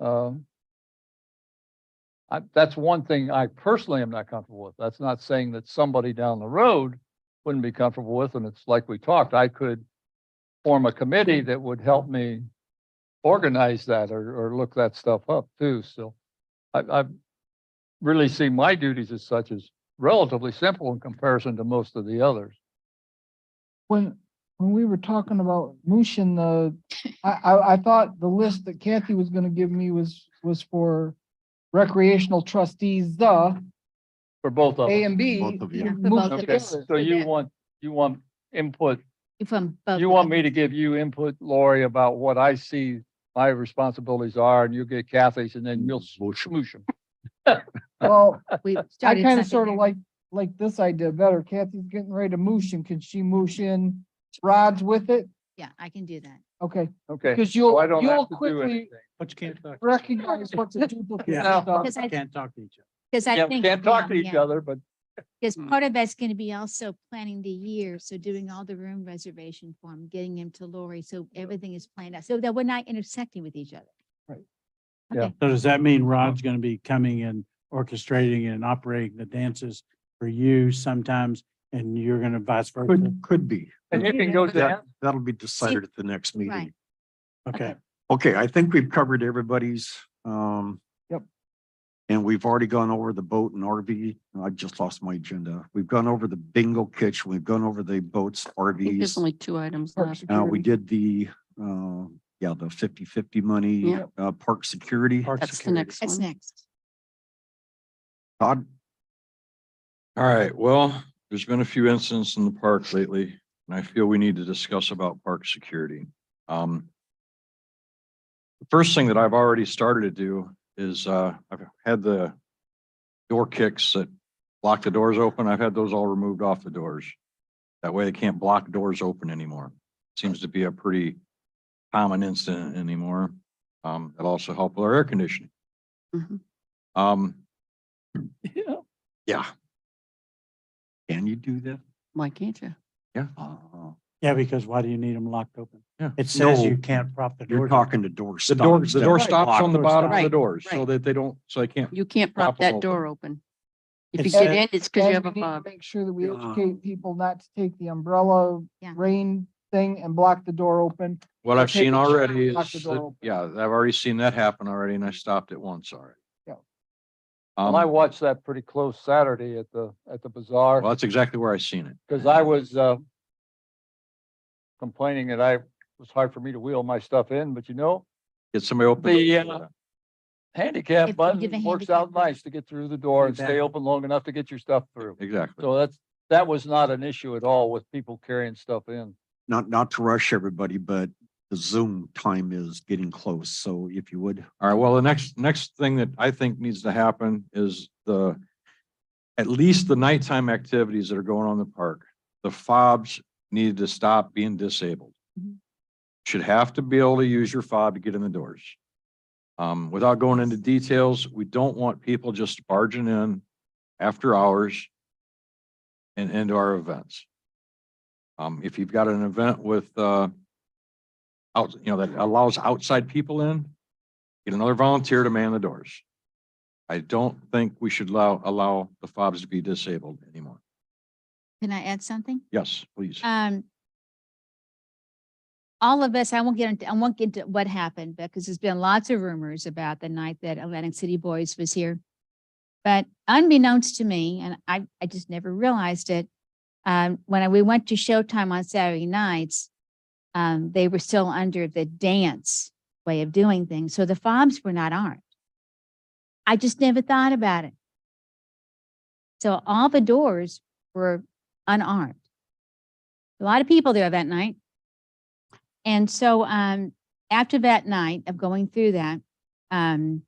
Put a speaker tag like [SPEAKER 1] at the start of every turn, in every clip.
[SPEAKER 1] Um, I, that's one thing I personally am not comfortable with. That's not saying that somebody down the road wouldn't be comfortable with, and it's like we talked, I could form a committee that would help me organize that or, or look that stuff up too, so. I, I really see my duties as such as relatively simple in comparison to most of the others.
[SPEAKER 2] When, when we were talking about Mushin, the, I, I, I thought the list that Kathy was gonna give me was, was for recreational trustees, the
[SPEAKER 1] For both of
[SPEAKER 2] A
[SPEAKER 1] them.
[SPEAKER 2] and B.
[SPEAKER 3] Both of
[SPEAKER 2] you
[SPEAKER 3] you.
[SPEAKER 2] moved
[SPEAKER 4] both of
[SPEAKER 1] Okay,
[SPEAKER 4] us.
[SPEAKER 2] together.
[SPEAKER 1] so you want, you want input,
[SPEAKER 4] From.
[SPEAKER 1] you want me to give you input, Lori, about what I see my responsibilities are, and you get Kathy's, and then you'll smoosh them.
[SPEAKER 2] Well, I
[SPEAKER 4] I
[SPEAKER 2] kinda sorta like, like this idea better. Kathy's getting ready to Mushin. Can she Mushin? Rod's with it?
[SPEAKER 4] Yeah, I can do that.
[SPEAKER 2] Okay,
[SPEAKER 1] Okay,
[SPEAKER 2] cause
[SPEAKER 1] so
[SPEAKER 2] you'll,
[SPEAKER 1] I don't
[SPEAKER 2] you'll
[SPEAKER 1] have to do
[SPEAKER 2] quickly
[SPEAKER 1] anything.
[SPEAKER 5] But you can't talk.
[SPEAKER 2] recognize what's a duplicate
[SPEAKER 5] Yeah.
[SPEAKER 2] and stuff.
[SPEAKER 4] Because I,
[SPEAKER 5] Can't talk to each other.
[SPEAKER 4] because I
[SPEAKER 1] Yeah,
[SPEAKER 4] think.
[SPEAKER 1] we can't talk to each other, Hmm. but
[SPEAKER 4] Because part of that's going to be also planning the year. So doing all the room reservation form, getting them to Lori. So everything is planned out so that we're not intersecting with each other.
[SPEAKER 5] So does that mean Rod's gonna be coming and orchestrating and operating the dances for you sometimes? And you're gonna vice versa?
[SPEAKER 3] Could, could be.
[SPEAKER 1] and you can go
[SPEAKER 3] That,
[SPEAKER 1] down.
[SPEAKER 3] that'll be decided at the next
[SPEAKER 4] Right.
[SPEAKER 3] meeting.
[SPEAKER 5] Okay,
[SPEAKER 3] Okay, I think we've covered everybody's, um.
[SPEAKER 2] Yep.
[SPEAKER 3] And we've already gone over the boat and RV. I just lost my agenda. We've gone over the bingo kitchen. We've gone over the boats,
[SPEAKER 6] think There's
[SPEAKER 3] RVs.
[SPEAKER 6] only two items
[SPEAKER 2] Park
[SPEAKER 6] left.
[SPEAKER 3] Uh,
[SPEAKER 2] security.
[SPEAKER 3] we did the, uh, yeah, the 50 money,
[SPEAKER 6] Yeah.
[SPEAKER 3] uh, park security.
[SPEAKER 5] Park
[SPEAKER 6] That's the
[SPEAKER 5] security.
[SPEAKER 6] next
[SPEAKER 4] That's
[SPEAKER 6] one.
[SPEAKER 4] next.
[SPEAKER 3] Todd,
[SPEAKER 7] All right, well, there's been a few incidents in the park lately, and I feel we need to discuss about park security. Um. The first thing that I've already started to do is, uh, I've had the door kicks that block the doors open. I've had those all removed off the doors. That way they can't block doors open anymore. Seems to be a pretty common incident anymore. Um, it'll also help with our air conditioning.
[SPEAKER 6] Mhm.
[SPEAKER 7] Um. Yeah.
[SPEAKER 3] can you do that?
[SPEAKER 6] Why can't you?
[SPEAKER 7] Yeah.
[SPEAKER 3] Uh,
[SPEAKER 5] Yeah, because why do you need them locked open?
[SPEAKER 7] Yeah.
[SPEAKER 5] It says
[SPEAKER 3] No.
[SPEAKER 5] you can't prop the door.
[SPEAKER 3] You're talking to door
[SPEAKER 7] The
[SPEAKER 3] stops.
[SPEAKER 7] door, the door
[SPEAKER 3] That's
[SPEAKER 7] stops
[SPEAKER 3] locked.
[SPEAKER 7] on the
[SPEAKER 5] Door
[SPEAKER 7] bottom of the
[SPEAKER 6] stop.
[SPEAKER 7] doors so
[SPEAKER 6] Right.
[SPEAKER 7] that they don't, so they can't.
[SPEAKER 6] You can't prop
[SPEAKER 7] Prop 'em
[SPEAKER 6] that door open. If you
[SPEAKER 5] It's
[SPEAKER 6] get
[SPEAKER 5] a-
[SPEAKER 6] in, it's because
[SPEAKER 2] And
[SPEAKER 6] you have a
[SPEAKER 2] we need to
[SPEAKER 6] fob.
[SPEAKER 2] Make sure that we
[SPEAKER 3] Yeah.
[SPEAKER 2] educate people not to take the umbrella
[SPEAKER 4] Yeah.
[SPEAKER 2] rain thing and block the door open.
[SPEAKER 7] What I've
[SPEAKER 2] Take
[SPEAKER 7] seen
[SPEAKER 2] the shot,
[SPEAKER 7] already is,
[SPEAKER 2] lock the door
[SPEAKER 7] that-
[SPEAKER 2] open.
[SPEAKER 7] yeah, I've already seen that happen already and I stopped it once already.
[SPEAKER 2] Yeah.
[SPEAKER 1] And I
[SPEAKER 7] Um,
[SPEAKER 1] watched that pretty close Saturday at the, at the
[SPEAKER 7] well,
[SPEAKER 1] bazaar,
[SPEAKER 7] that's exactly where I seen it.
[SPEAKER 1] because I was, uh, complaining that I, it was hard for me to wheel my stuff in, but you know,
[SPEAKER 7] Get somebody open.
[SPEAKER 1] The,
[SPEAKER 7] the
[SPEAKER 1] uh,
[SPEAKER 7] door.
[SPEAKER 1] handicap
[SPEAKER 4] If you give a
[SPEAKER 1] button works
[SPEAKER 4] handicap
[SPEAKER 1] out
[SPEAKER 4] button.
[SPEAKER 1] nice to get through the door and stay
[SPEAKER 5] Exactly.
[SPEAKER 1] open long enough to get your stuff through.
[SPEAKER 7] Exactly.
[SPEAKER 1] So that's, that was not an issue at all with people carrying stuff in.
[SPEAKER 3] not, not to rush everybody, but the Zoom time is getting close. So if you would,
[SPEAKER 7] All right, well, the next, next thing that I think needs to happen is the, at least the nighttime activities that are going on in the park. The fobs need to stop being disabled. Should have to be able to use your fob to get in the doors. Um, without going into details, we don't want people just barging in after hours and into our events. Um, if you've got an event with, uh, out, you know, that allows outside people in, get another volunteer to man the doors. I don't think we should allow, allow the fobs to be disabled anymore.
[SPEAKER 4] Can I add something?
[SPEAKER 7] Yes, please.
[SPEAKER 4] Um. All of us, I won't get into, I won't get into what happened because there's been lots of rumors about the night that Atlantic City Boys was here. But unbeknownst to me, and I, I just never realized it, um, when I- we went to Showtime on Saturday nights, um, they were still under the dance way of doing things. So the fobs were not armed. I just never thought about it. So all the doors were unarmed a lot of people there that night. And so um after that night of going through that, um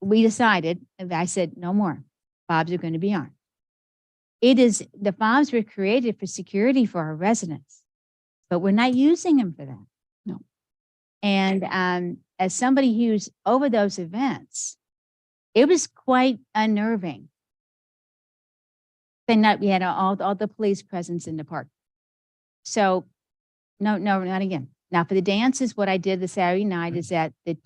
[SPEAKER 4] we decided, and I said, no more. Fobs are going to be armed. It is, the fobs were created for security for our residents, but we're not using them for that.
[SPEAKER 6] No.
[SPEAKER 4] And um as somebody who's over those events, it was quite unnerving then that we had all, all the police presence in the park. So, no, no, not again. Now for the dances, what I did the Saturday night is that the